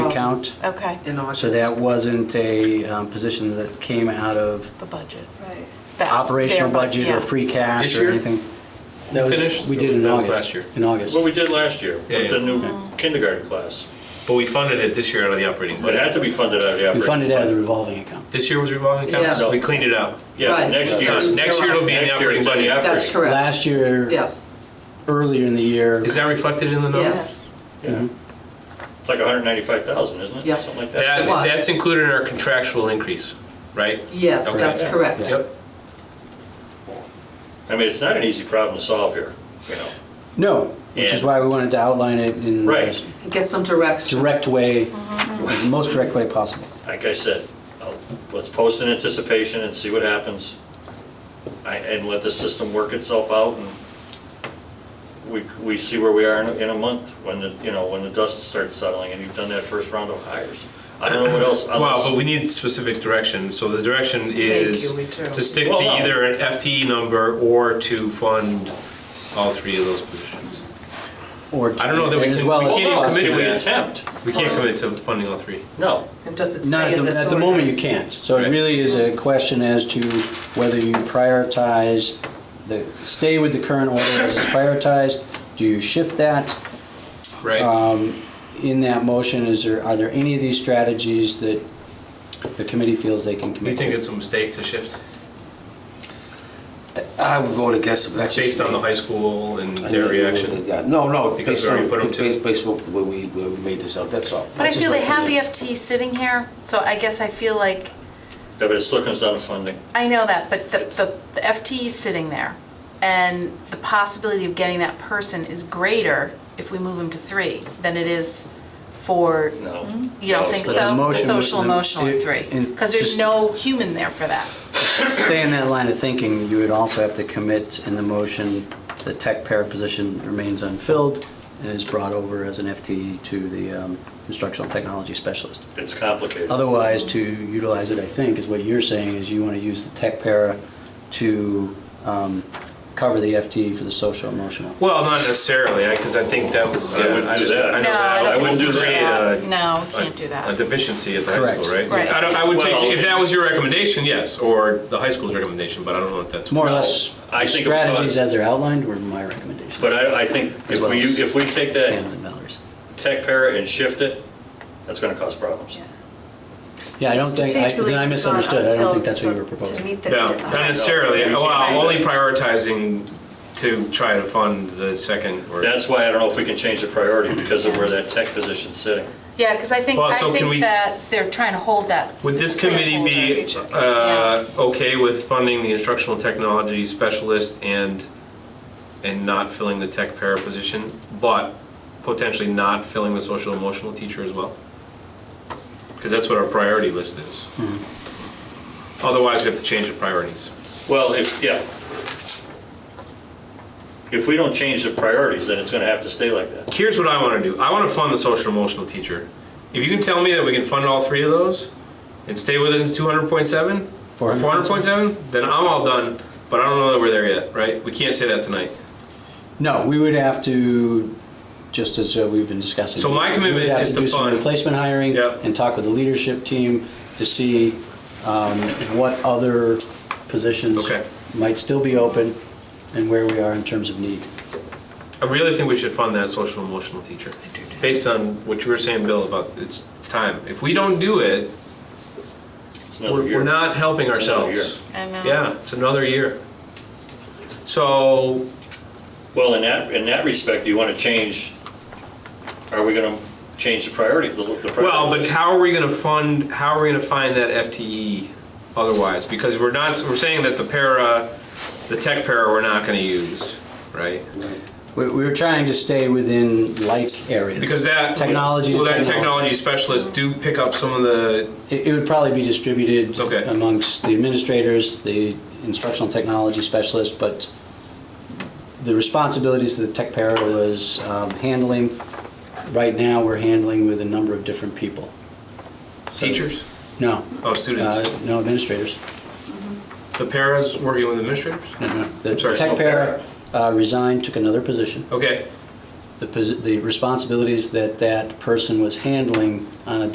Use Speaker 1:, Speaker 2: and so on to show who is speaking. Speaker 1: account.
Speaker 2: Okay,
Speaker 3: in August.
Speaker 1: So that wasn't a um, position that came out of
Speaker 2: the budget.
Speaker 4: Right.
Speaker 2: That-
Speaker 1: operational
Speaker 2: their bu-
Speaker 1: budget or
Speaker 2: yeah.
Speaker 1: free cash
Speaker 5: This
Speaker 1: or
Speaker 5: year?
Speaker 1: anything. That was-
Speaker 6: Finished?
Speaker 1: We did in
Speaker 5: That was
Speaker 1: August.
Speaker 5: last year.
Speaker 1: In August.
Speaker 6: What we did last year
Speaker 5: Yeah,
Speaker 6: with the
Speaker 5: yeah.
Speaker 6: new
Speaker 3: Oh.
Speaker 6: kindergarten class.
Speaker 5: But we funded it this year out of the operating
Speaker 6: It had
Speaker 5: budget.
Speaker 6: to be funded out of the
Speaker 1: We
Speaker 6: operating.
Speaker 1: funded out of the
Speaker 6: budget.
Speaker 1: revolving account.
Speaker 5: This year was revolving account?
Speaker 3: Yes.
Speaker 5: We cleaned it out.
Speaker 6: Yeah,
Speaker 3: Right.
Speaker 6: next year.
Speaker 3: Because
Speaker 5: Next year it'll be in the
Speaker 6: Next year
Speaker 5: operating
Speaker 6: it's in the
Speaker 5: budget.
Speaker 3: That's
Speaker 6: operating.
Speaker 3: correct,
Speaker 1: Last year,
Speaker 3: yes,
Speaker 1: earlier in the year,
Speaker 5: Is that reflected in the numbers?
Speaker 3: yes.
Speaker 6: Yeah. It's like 195,000, isn't it?
Speaker 3: Yeah.
Speaker 6: Something like
Speaker 5: That,
Speaker 6: that.
Speaker 3: It was.
Speaker 5: that's included in our contractual increase, right?
Speaker 3: Yes,
Speaker 5: Okay.
Speaker 3: that's correct.
Speaker 5: Yep.
Speaker 6: I mean, it's not an easy problem to solve here, you know?
Speaker 1: no, which is
Speaker 6: Yeah.
Speaker 1: why we wanted to outline it in
Speaker 6: Right.
Speaker 1: the
Speaker 3: Get some direction.
Speaker 1: direct way, the most direct way possible.
Speaker 6: Like I said, I'll- let's post in anticipation and see what happens. I- And let the system work itself out and we, we see where we are in, a- in a month when the, you know, when the dust starts settling and you've done that first round of hires. I don't know what else.
Speaker 5: Well, but we need specific direction, so the direction is
Speaker 3: you, we do.
Speaker 5: to stick
Speaker 6: Well,
Speaker 5: to
Speaker 6: no.
Speaker 5: either an FTE number or to fund all three of those positions.
Speaker 1: Or
Speaker 5: I don't know that we
Speaker 1: as
Speaker 5: can-
Speaker 1: well
Speaker 5: we
Speaker 1: as
Speaker 5: can't even
Speaker 1: possible.
Speaker 5: commit
Speaker 6: Can we
Speaker 5: to that.
Speaker 6: attempt?
Speaker 5: We can't commit to funding all three.
Speaker 6: No.
Speaker 3: And does it
Speaker 1: Not
Speaker 3: stay
Speaker 1: at
Speaker 3: in
Speaker 1: the,
Speaker 3: this
Speaker 1: at
Speaker 3: order?
Speaker 1: the moment, you can't. So it
Speaker 5: Right.
Speaker 1: really is a question as to whether you prioritize the, stay with the current order as it's prioritized. Do you shift that?
Speaker 5: Right.
Speaker 1: In that motion, is there, are there any of these strategies that the committee feels they can
Speaker 5: We
Speaker 1: commit
Speaker 5: think
Speaker 1: to?
Speaker 5: it's a mistake to shift
Speaker 7: I would vote against it. That's just
Speaker 5: based on
Speaker 7: me.
Speaker 5: the high school and
Speaker 7: I
Speaker 5: their
Speaker 7: think we
Speaker 5: reaction.
Speaker 7: voted that. No, no.
Speaker 5: Because
Speaker 7: based
Speaker 5: we already
Speaker 7: on-
Speaker 5: put 'em to-
Speaker 7: Based, based on where we, where we made this up, that's all.
Speaker 4: But I
Speaker 7: That's
Speaker 4: feel
Speaker 7: just
Speaker 4: they
Speaker 7: my
Speaker 4: have the
Speaker 7: opinion.
Speaker 4: FTE sitting here, so I guess I feel like,
Speaker 6: Yeah, but it still comes down to funding.
Speaker 4: I know that, but the, the- the FTE is sitting there. And the possibility of getting that person is greater if we move him to three than it is for,
Speaker 6: No.
Speaker 4: Mm-hmm. you don't
Speaker 6: No,
Speaker 4: think
Speaker 6: it's not.
Speaker 1: The
Speaker 4: so?
Speaker 1: motion was-
Speaker 4: Social, emotional at
Speaker 1: it-
Speaker 4: three.
Speaker 1: it-
Speaker 4: Because there's
Speaker 1: just-
Speaker 4: no human there for that.
Speaker 1: Stay in that line of thinking, you would also have to commit in the motion, the tech para position remains unfilled and is brought over as an FTE to the um, instructional technology specialist.
Speaker 6: It's complicated.
Speaker 1: Otherwise, to utilize it, I think, is what you're saying, is you want to use the tech para to um, cover the FTE for the social emotional.
Speaker 5: Well, not necessarily, because I think that.
Speaker 6: I wouldn't do that.
Speaker 5: I know
Speaker 4: No,
Speaker 5: that
Speaker 4: I don't
Speaker 5: would
Speaker 6: wouldn't do
Speaker 5: create
Speaker 6: that.
Speaker 5: a-
Speaker 4: No, you
Speaker 5: a-
Speaker 4: can't do
Speaker 5: A
Speaker 4: that.
Speaker 5: deficiency at the high
Speaker 1: Correct.
Speaker 5: school, right?
Speaker 4: Right.
Speaker 5: I don't, I would
Speaker 6: Well-
Speaker 5: take, if that was your recommendation, yes, or the high school's recommendation, but I don't know if that's.
Speaker 1: It's more or
Speaker 6: No,
Speaker 1: less,
Speaker 6: I
Speaker 1: the
Speaker 6: think it
Speaker 1: strategies
Speaker 6: was.
Speaker 1: as they're outlined were my recommendations.
Speaker 6: But I, I think if we, if we
Speaker 1: Pam's
Speaker 6: take that
Speaker 1: and Valerie's.
Speaker 6: tech para and shift it, that's gonna cause problems.
Speaker 1: Yeah, I don't think, I- then I misunderstood, I don't think that's what you were
Speaker 4: To
Speaker 1: proposing.
Speaker 4: meet
Speaker 5: No,
Speaker 4: the.
Speaker 5: not necessarily,
Speaker 6: No, we
Speaker 5: well,
Speaker 6: can't.
Speaker 5: I'm only prioritizing to try to fund the second or.
Speaker 6: That's why I don't know if we can change the priority because of where that tech position's sitting.
Speaker 4: Yeah, because I think,
Speaker 5: Well,
Speaker 4: I
Speaker 5: so can
Speaker 4: think
Speaker 5: we-
Speaker 4: that they're trying to hold that.
Speaker 5: Would this committee be
Speaker 4: placeholder.
Speaker 5: uh, okay with funding the instructional technology specialist and, and not filling the tech para position, but potentially not filling the social emotional teacher as well? Because that's what our priority list is. Otherwise, we have to change the priorities.
Speaker 6: Well, if, yeah. If we don't change the priorities, then it's gonna have to stay like that.
Speaker 5: Here's what I want to do. I want to fund the social emotional teacher. If you can tell me that we can fund all three of those and stay within 200.7 or 400.7, then I'm all done. But I don't know that we're there yet, right? We can't say that tonight.
Speaker 1: No, we would have to, just as uh, we've been discussing.
Speaker 5: So my commitment
Speaker 1: we would have
Speaker 5: is to
Speaker 1: do some
Speaker 5: fund-
Speaker 1: Replacement hiring
Speaker 5: Yep.
Speaker 1: and talk with the leadership team to see um, what other positions
Speaker 5: Okay.
Speaker 1: might still be open and where we are in terms of need.
Speaker 5: I really think we should fund that social emotional teacher. Based on what you were saying, Bill, about it's, it's time. If we don't do it,
Speaker 6: It's another
Speaker 5: we're,
Speaker 6: year.
Speaker 5: we're not helping
Speaker 6: It's another
Speaker 5: ourselves.
Speaker 4: I know.
Speaker 5: Yeah, it's another year. So
Speaker 6: Well, in that, in that respect, do you wanna change, are we gonna change the priority? the- the priority
Speaker 5: Well, but
Speaker 6: list?
Speaker 5: how are we gonna fund, how are we gonna find that FTE otherwise? Because we're not, we're saying that the para, the tech para, we're not gonna use, right?
Speaker 1: We we were trying to stay within like areas.
Speaker 5: Because that.
Speaker 1: Technology to
Speaker 5: Will that
Speaker 1: technology.
Speaker 5: technology specialist do pick up some of the,
Speaker 1: It it would probably be distributed
Speaker 5: Okay.
Speaker 1: amongst the administrators, the instructional technology specialist, but the responsibilities that the tech para was um, handling, right now, we're handling with a number of different people.
Speaker 5: teachers?
Speaker 1: No,
Speaker 5: Oh,
Speaker 1: uh,
Speaker 5: students?
Speaker 1: no administrators.
Speaker 5: The paras working with administrators?
Speaker 1: No, no. The
Speaker 5: I'm sorry,
Speaker 1: tech
Speaker 5: no
Speaker 1: para uh, resigned, took another position.
Speaker 5: Okay.
Speaker 1: The posi- The responsibilities that that person was handling on a